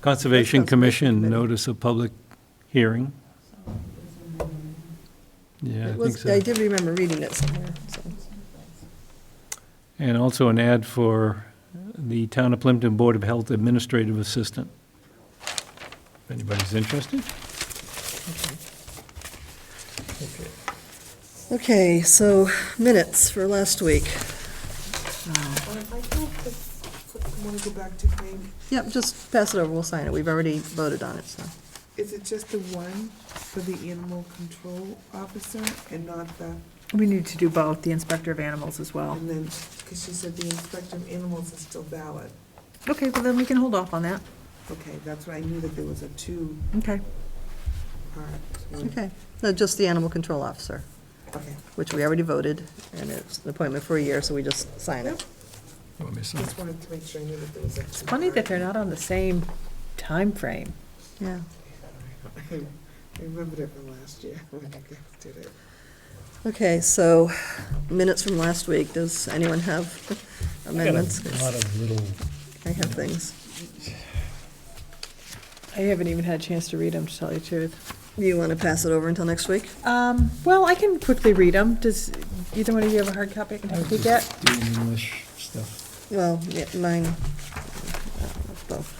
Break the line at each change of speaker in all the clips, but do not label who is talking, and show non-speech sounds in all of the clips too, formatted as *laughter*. Conservation
That sounds good.
Commission notice of public hearing. Yeah, I
It
think
was, I
so.
did remember reading it somewhere, so.
And also an ad for the Town of Plimpton Board of Health Administrative Assistant. If anybody's interested?
Okay, so minutes for last week.
Um, I thought that, I want to go back to claim,
Yep, just pass it over, we'll sign it, we've already voted on it, so.
is it just the one for the animal control officer and not the,
We need to do both, the inspector of animals as well.
and then, because she said the inspector of animals is still valid.
Okay, well then we can hold off on that.
Okay, that's what I knew that there was a two-part.
Okay.
one.
Okay, no, just the animal control officer,
Okay,
which we already voted, and it's an appointment for a year, so we just sign it.
You want me to sign?
just wanted to make sure I knew that there was a two-part.
Funny that they're not on the same time frame.
Yeah.
*laughs* I remembered it from last year *laughs* when I did it.
Okay, so minutes from last week, does anyone have amendments?
A lot of little,
I have things.
I haven't even had a chance to read them, to tell you the truth.
Do you want to pass it over until next week?
Um, well, I can quickly read them. Does either one of you have a hard copy I can
I
help you
just
get?
do English stuff.
Well, yeah, mine, uh, both.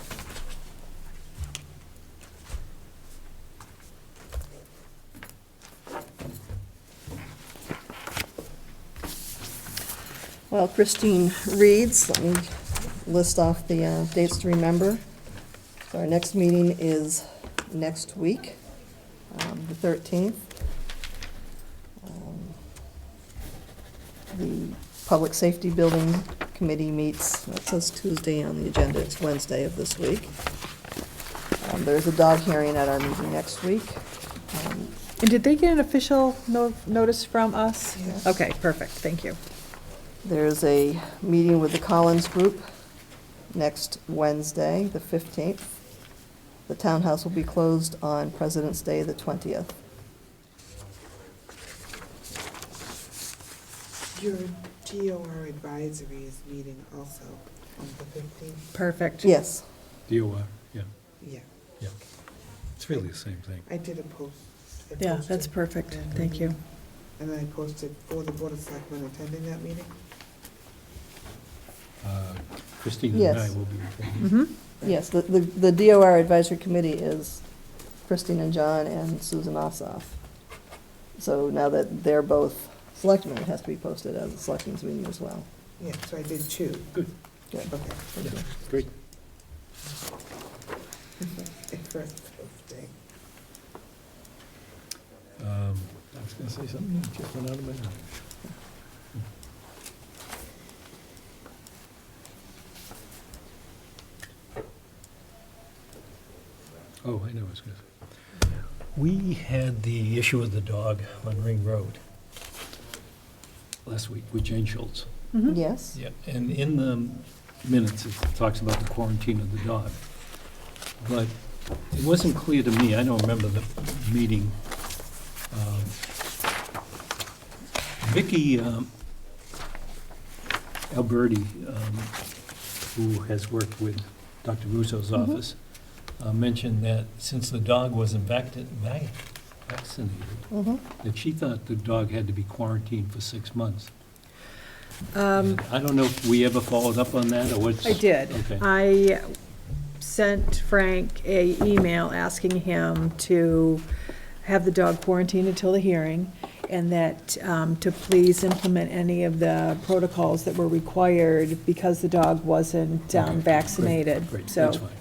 Well, Christine reads, let me list off the uh, dates to remember. So our next meeting is next week, um, the 13th. Um, The Public Safety Building Committee meets, that says Tuesday on the agenda, it's Wednesday of this week. Um, There's a dog hearing at our meeting next week. Um,
And did they get an official no- notice from us?
Yes.
Okay, perfect, thank you.
There's a meeting with the Collins Group next Wednesday, the 15th. The townhouse will be closed on President's Day, the 20th.
Your DOR advisory is meeting also on the fifteenth,
Perfect.
Yes,
DOR, yeah,
yeah,
yeah. It's really the same thing.
I did a post. I
Yeah, that's
posted.
perfect, thank you.
And then I posted for the Board of Selectmen attending that meeting.
Uh, Christine and I
Yes. Mm-hmm.
will be reporting.
hmm
yes, the, the the DOR Advisory Committee is Christine and John and Susan Ossoff. So now that they're both selectmen, it has to be posted as a selectmen's meeting as well.
Yeah, so I did two.
Good.
Good.
Okay. *laughs*
Thank you.
*laughs* Great.
First posting.
Um, I was going to say something, it just went out of my mind. Oh, I know, what I was going to say. We had the issue of the dog on Ring Road last week with Jane Schultz.
Yes?
Yeah, and in the minutes, it talks about the quarantine of the dog. But it wasn't clear to me, I don't remember the meeting. um, Vicky um, Alberti, um, who has worked with Dr. Russo's office, uh, mentioned that since the dog wasn't vacti- vac- vaccinated,
Mm-hmm.
that she thought the dog had to be quarantined for six months.
Um,
I don't know if we ever followed up on that, or what's...
I did.
Okay.
I sent Frank a email asking him to have the dog quarantined until the hearing, and that, um, to please implement any of the protocols that were required because the dog wasn't
Okay,
um,
great,
vaccinated,
Great, that's
so. Mm-hmm.
fine.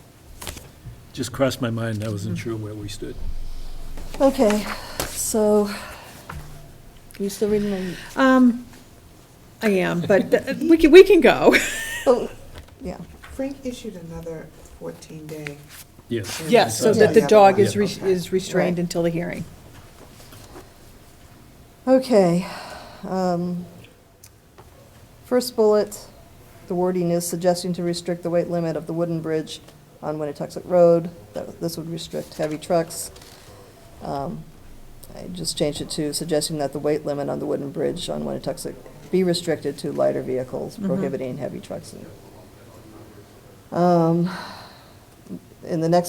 Just crossed my mind, I wasn't sure where we stood.
Okay, so, you still reading my
Um, I am, but th- we can, we can go.
Oh, yeah,
Frank issued another fourteen day.
Yes.
Yes, so that the dog is, res- is restrained
Right.
until the hearing.
okay. um, First bullet, the wording is suggesting to restrict the weight limit of the wooden bridge on Winnetoxet Road. That- This would restrict heavy trucks. Um, I just changed it to suggesting that the weight limit on the wooden bridge on Winnetoxet be restricted to lighter vehicles,
Mhm.
prohibiting heavy trucks. and- Um, in the next